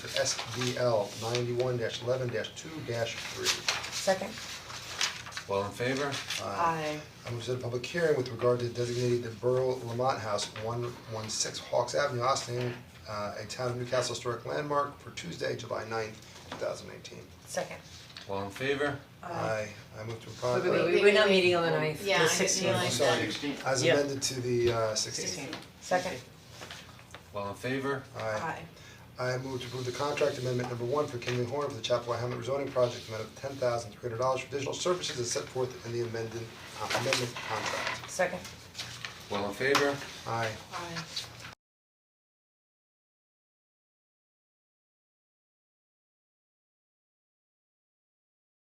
to SDL ninety-one eleven two three. Second? All in favor? Aye. I move to set a public hearing with regard to designating the Borough Lamont House, one one six Hawks Avenue, Austin, uh, a town of Newcastle historic landmark for Tuesday, July 9th, two thousand nineteen. Second. All in favor? Aye. I move to Wait, wait, approve, wait, We're not meeting on the ninth, Yeah, I the didn't sixteenth. realize- I'm sorry, Sixteenth. as Yeah. amended to the uh sixteenth. Second? All in favor? Aye. I move to approve the contract amendment number one for Kinley Horn for the Chapel Hamlet rezoning project, amount of ten thousand three hundred dollars for additional services as set forth in the amended, uh, amendment contract. Second? All in favor? Aye. Aye.